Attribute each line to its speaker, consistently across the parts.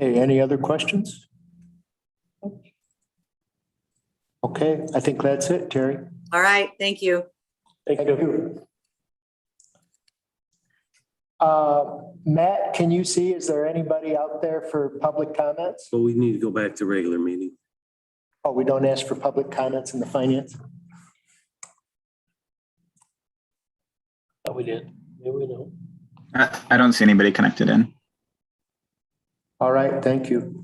Speaker 1: Okay, any other questions? Okay, I think that's it, Terry.
Speaker 2: All right, thank you.
Speaker 1: Thank you. Uh, Matt, can you see, is there anybody out there for public comments?
Speaker 3: But we need to go back to regular meeting.
Speaker 1: Oh, we don't ask for public comments in the finance?
Speaker 4: Oh, we did. Maybe we don't.
Speaker 5: I, I don't see anybody connected in.
Speaker 1: All right, thank you.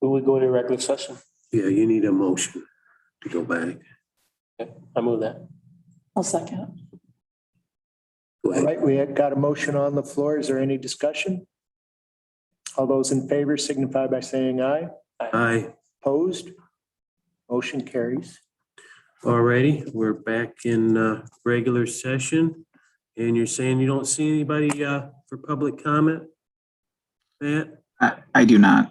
Speaker 4: We would go to regular session.
Speaker 3: Yeah, you need a motion to go back.
Speaker 4: I move that.
Speaker 6: I'll second.
Speaker 1: All
Speaker 3: Go ahead.
Speaker 1: right, we have got a motion on the floor. Is there any discussion? All those in favor signify by saying aye.
Speaker 3: Aye.
Speaker 1: Opposed? Motion carries.
Speaker 3: Alrighty, we're back in uh, regular session. And you're saying you don't see anybody uh, for public comment? Matt?
Speaker 5: I, I do not.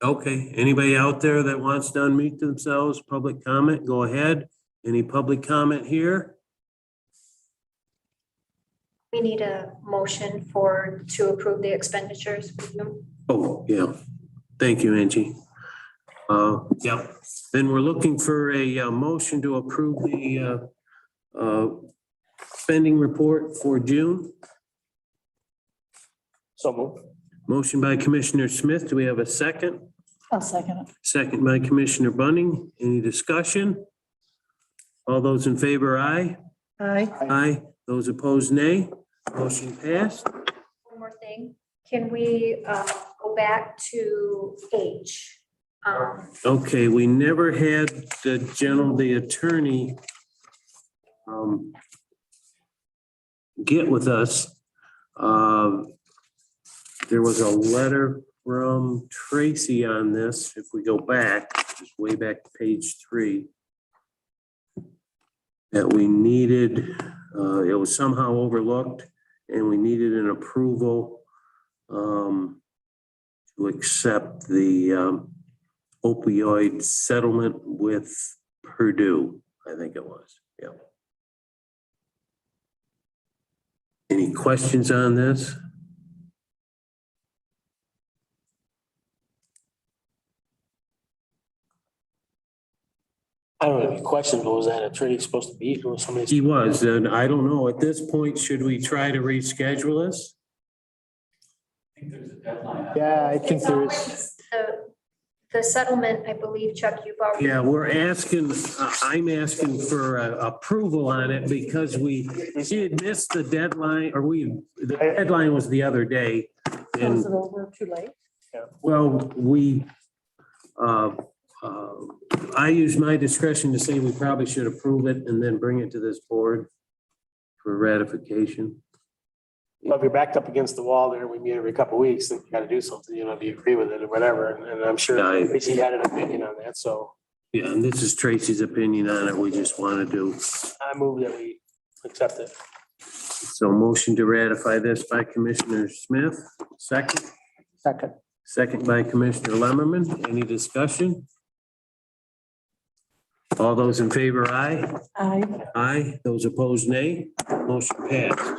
Speaker 3: Okay, anybody out there that wants to unmute themselves, public comment, go ahead. Any public comment here?
Speaker 7: We need a motion for, to approve the expenditures.
Speaker 3: Oh, yeah. Thank you, Angie. Uh, yeah, then we're looking for a uh, motion to approve the uh, uh, spending report for June.
Speaker 4: So move.
Speaker 3: Motion by Commissioner Smith. Do we have a second?
Speaker 6: I'll second it.
Speaker 3: Second by Commissioner Bunning. Any discussion? All those in favor, aye.
Speaker 6: Aye.
Speaker 3: Aye. Those opposed, nay. Motion passed.
Speaker 7: One more thing, can we uh, go back to H? Um,
Speaker 3: Okay, we never had the general, the attorney um, get with us. Um, There was a letter from Tracy on this, if we go back, just way back to page three, that we needed, uh, it was somehow overlooked, and we needed an approval um, to accept the um, opioid settlement with Purdue, I think it was, yeah. Any questions on this?
Speaker 4: I don't have any questions, but was that attorney supposed to be, or was somebody?
Speaker 3: He was, and I don't know, at this point, should we try to reschedule this?
Speaker 1: Yeah, I think there is.
Speaker 7: The, the settlement, I believe, Chuck, you've already.
Speaker 3: Yeah, we're asking, uh, I'm asking for uh, approval on it because we, she had missed the deadline, or we, the deadline was the other day. And
Speaker 6: Was it over too late?
Speaker 3: Well, we, uh, uh, I use my discretion to say we probably should approve it and then bring it to this board for ratification.
Speaker 4: Well, If you're backed up against the wall there, we meet every couple of weeks, then you gotta do something, you know, do you agree with it or whatever, and- and I'm sure
Speaker 3: Aye.
Speaker 4: Tracy had an opinion on that, so
Speaker 3: Yeah, and this is Tracy's opinion on it. We just want to do.
Speaker 4: I move that we accept it.
Speaker 3: So motion to ratify this by Commissioner Smith, second,
Speaker 1: Second.
Speaker 3: second by Commissioner Lumberman. Any discussion? All those in favor, aye?
Speaker 6: Aye.
Speaker 3: Aye. Those opposed, nay. Motion passed.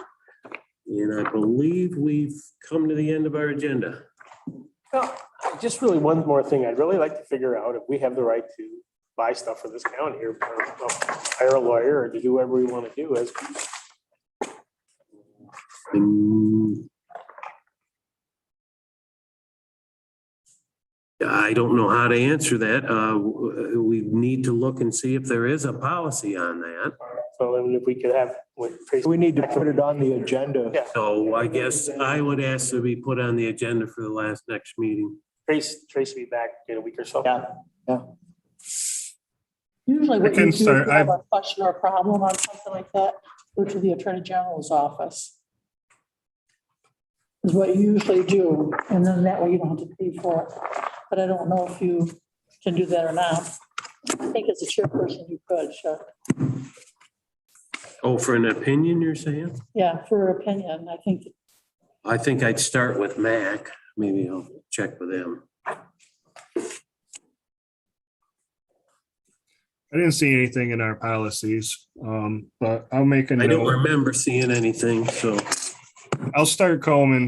Speaker 3: And I believe we've come to the end of our agenda.
Speaker 4: Well, just really one more thing. I'd really like to figure out if we have the right to buy stuff for this county or or, well, hire a lawyer or to do whatever we want to do as.
Speaker 3: Mm. I don't know how to answer that. Uh, w- We need to look and see if there is a policy on that.
Speaker 4: So I mean, if we could have with Tracy.
Speaker 1: We need to put it on the agenda.
Speaker 3: So I guess I would ask to be put on the agenda for the last next meeting.
Speaker 4: Trace, Trace be back in a week or so.
Speaker 1: Yeah.
Speaker 6: Usually
Speaker 8: I
Speaker 6: what
Speaker 8: can
Speaker 6: you do, if you
Speaker 8: start.
Speaker 6: have a question or a problem on something like that, go to the Attorney General's office. Is what you usually do, and then that way you don't have to pay for it. But I don't know if you can do that or not. I think as a chairperson, you could, sure.
Speaker 3: Oh, for an opinion, you're saying?
Speaker 6: Yeah, for your opinion, I think
Speaker 3: I think I'd start with Mac. Maybe I'll check with him.
Speaker 8: I didn't see anything in our policies, um, but I'll make a
Speaker 3: I don't
Speaker 8: note.
Speaker 3: remember seeing anything, so.
Speaker 8: I'll start combing